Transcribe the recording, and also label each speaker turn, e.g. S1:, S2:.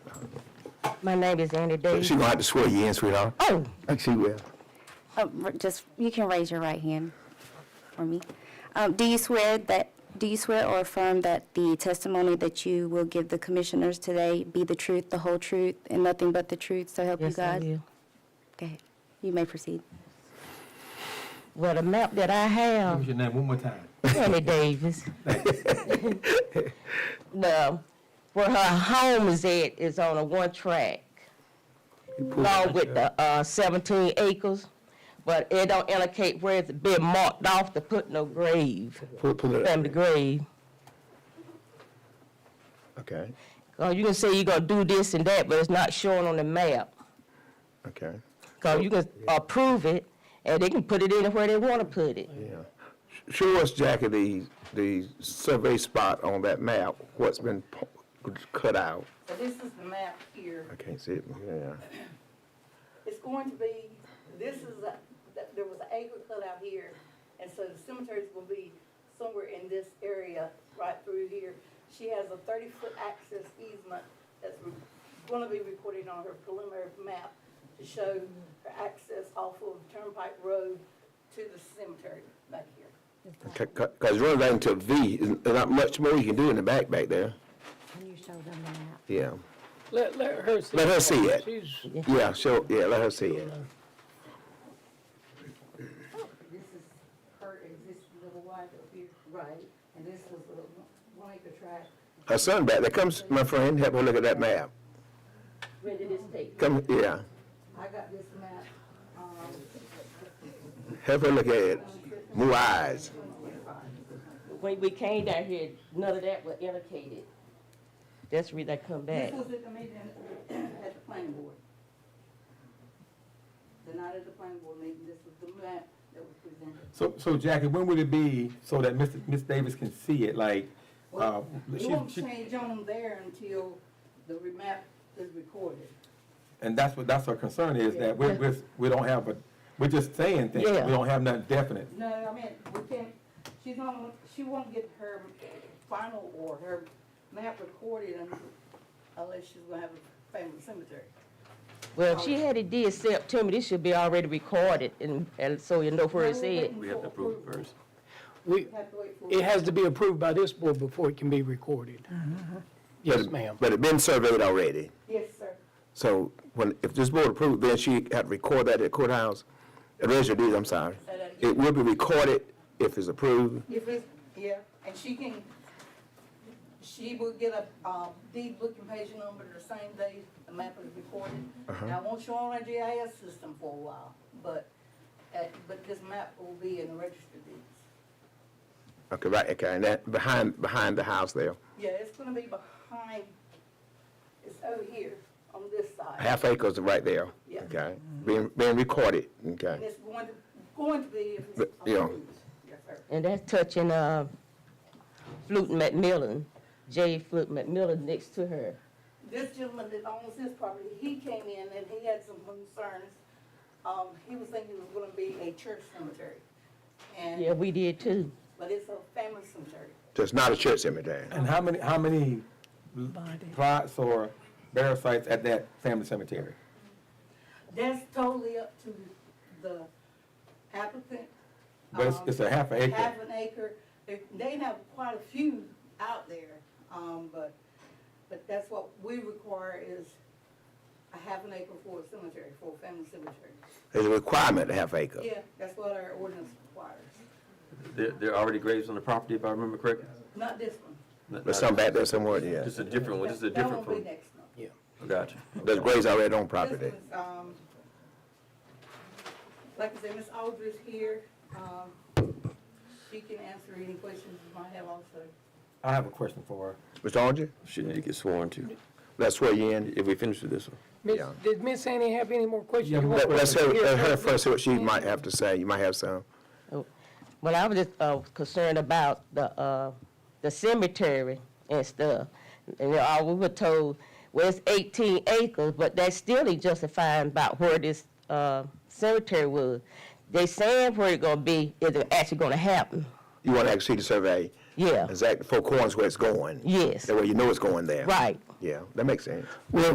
S1: My name is Andy
S2: She
S1: Davis.
S2: gonna have to swear you in, sweetheart.
S1: Oh,
S2: I think she will.
S3: Uh, r- Just, you can raise your right hand for me. Um, Do you swear that, do you swear or affirm that the testimony that you will give the commissioners today be the truth, the whole truth, and nothing but the truth, so help you
S1: yes, I
S3: God?
S1: will.
S3: Okay, you may proceed.
S1: Well, the map that I
S4: What's
S1: have,
S4: your name one more time?
S1: Andy Davis. The, where her home is at is on a one track, along with the uh, seventeen acres, but it don't indicate where it's been marked off to put no grave,
S2: Pull, pull it up.
S1: family grave.
S2: Okay,
S1: Cause Uh, you can say you're gonna do this and that, but it's not shown on the map.
S2: okay,
S1: Cause you can approve it, and they can put it anywhere they wanna put it.
S2: yeah. Sh- Show us, Jackie, the, the survey spot on that map, what's been pu- cut out.
S5: So this is the map here.
S2: I can't see it, yeah.
S5: It's going to be, this is, a- th- there was an acre cut out here, and so the cemetery's gonna be somewhere in this area, right through here. She has a thirty-foot access easement that's re- gonna be recorded on her preliminary map to show her access off of Turnpike Road to the cemetery back here.
S2: C- c- Cause running back into a V, there's not much more you can do in the back, back there.
S3: Can you show them the map?
S2: Yeah,
S6: Let, let her see.
S2: Let her see it.
S6: She's,
S2: yeah, show, yeah, let her see it.
S5: This is her existing little wife up here. Right. And this was a one acre tract.
S2: Her son back there, comes, my friend, help her look at that map.
S5: Where did this take?
S2: Come, yeah,
S5: I got this map, um,
S2: help her look at it, move eyes.
S1: When we came down here, none of that was indicated. That's the reason I come back.
S5: This was at the meeting at the planning board. The night of the planning board meeting, this was the map that was presented.
S4: So, so Jackie, when would it be so that Miss, Miss Davis can see it, like, uh,
S5: It
S4: she,
S5: won't
S4: she,
S5: change on there until the re- map is recorded.
S4: and that's what, that's her concern is, that we're, we're, we don't have a, we're just saying things, we
S1: Yeah.
S4: don't have nothing definite.
S5: No, I mean, we can't, she's not, she won't get her final or her map recorded un- unless she's gonna have a family cemetery.
S1: Well, if she had it did September, this should be already recorded, and, and so you know where it's at.
S5: We have to prove it first.
S6: we,
S5: We have to wait for.
S6: it has to be approved by this board before it can be recorded. Yes, ma'am.
S2: But it been surveyed already.
S5: Yes, sir.
S2: So when, if this board approved, then she had to record that at courthouse, at register of deeds, I'm sorry. It will be recorded if it's approved.
S5: If it's, yeah, and she can, she will get a, um, deed book and page number the same day the map is recorded.
S2: Uh-huh.
S5: Now, it won't show on our GIS system for a while, but, uh, but this map will be in the register of deeds.
S2: Okay, right, okay, and that, behind, behind the house there,
S5: Yeah, it's gonna be behind, it's over here on this side.
S2: half acres right there,
S5: Yeah.
S2: okay? Being, being recorded,
S5: And
S2: okay?
S5: it's going to, going to be if it's
S2: But, yeah.
S5: approved. Yes, sir.
S1: And that's touching, uh, Fluke McMillan, J. Fluke McMillan next to her.
S5: This gentleman that owns his property, he came in and he had some concerns. Um, he was thinking it was gonna be a church cemetery.
S1: Yeah,
S5: And,
S1: we did too.
S5: but it's a family cemetery.
S2: So it's not a church cemetery.
S4: And how many, how many plots or burial sites at that family cemetery?
S5: That's totally up to the applicant.
S4: But it's,
S5: Um,
S4: it's a half an acre.
S5: Half an acre. They, they have quite a few out there, um, but, but that's what we require is a half an acre for a cemetery, for a family cemetery.
S2: It's a requirement, a half acre.
S5: Yeah, that's what our ordinance requires.
S7: There, there are already graves on the property, if I remember correctly?
S5: Not this one.
S7: Not-
S2: There's
S7: not-
S2: some back there somewhere, yeah.
S7: This is a different one, this is a
S5: That- that
S7: different
S5: won't
S7: one.
S5: be next month.
S7: Gotcha.
S2: There's graves already on property.
S5: This was, um, like I said, Ms. Aldridge here, um, she can answer any questions you might have also.
S4: I have a question for her.
S2: Mr. Onger,
S7: She need to get sworn to,
S2: let's swear you in.
S7: if we finish with this one.
S6: Miss,
S2: Yeah.
S6: did Miss Annie have any more questions?
S4: Yeah,
S6: You
S2: Let-
S6: want-
S2: Let's hear, let her first, see what she might have to say, you might have some.
S1: Oh, Well, I was just uh, concerned about the, uh, the cemetery and stuff. And all we were told, well, it's 18 acres, but that's still ain't justifying about where this uh, cemetery was. They saying where it gonna be, is it actually gonna happen?
S2: You want to actually see the survey.
S1: Yeah.
S2: Exactly, four corners where it's going.
S1: Yes.
S2: That way you know it's going there.
S1: Right.
S2: Yeah, that makes sense.
S6: Well,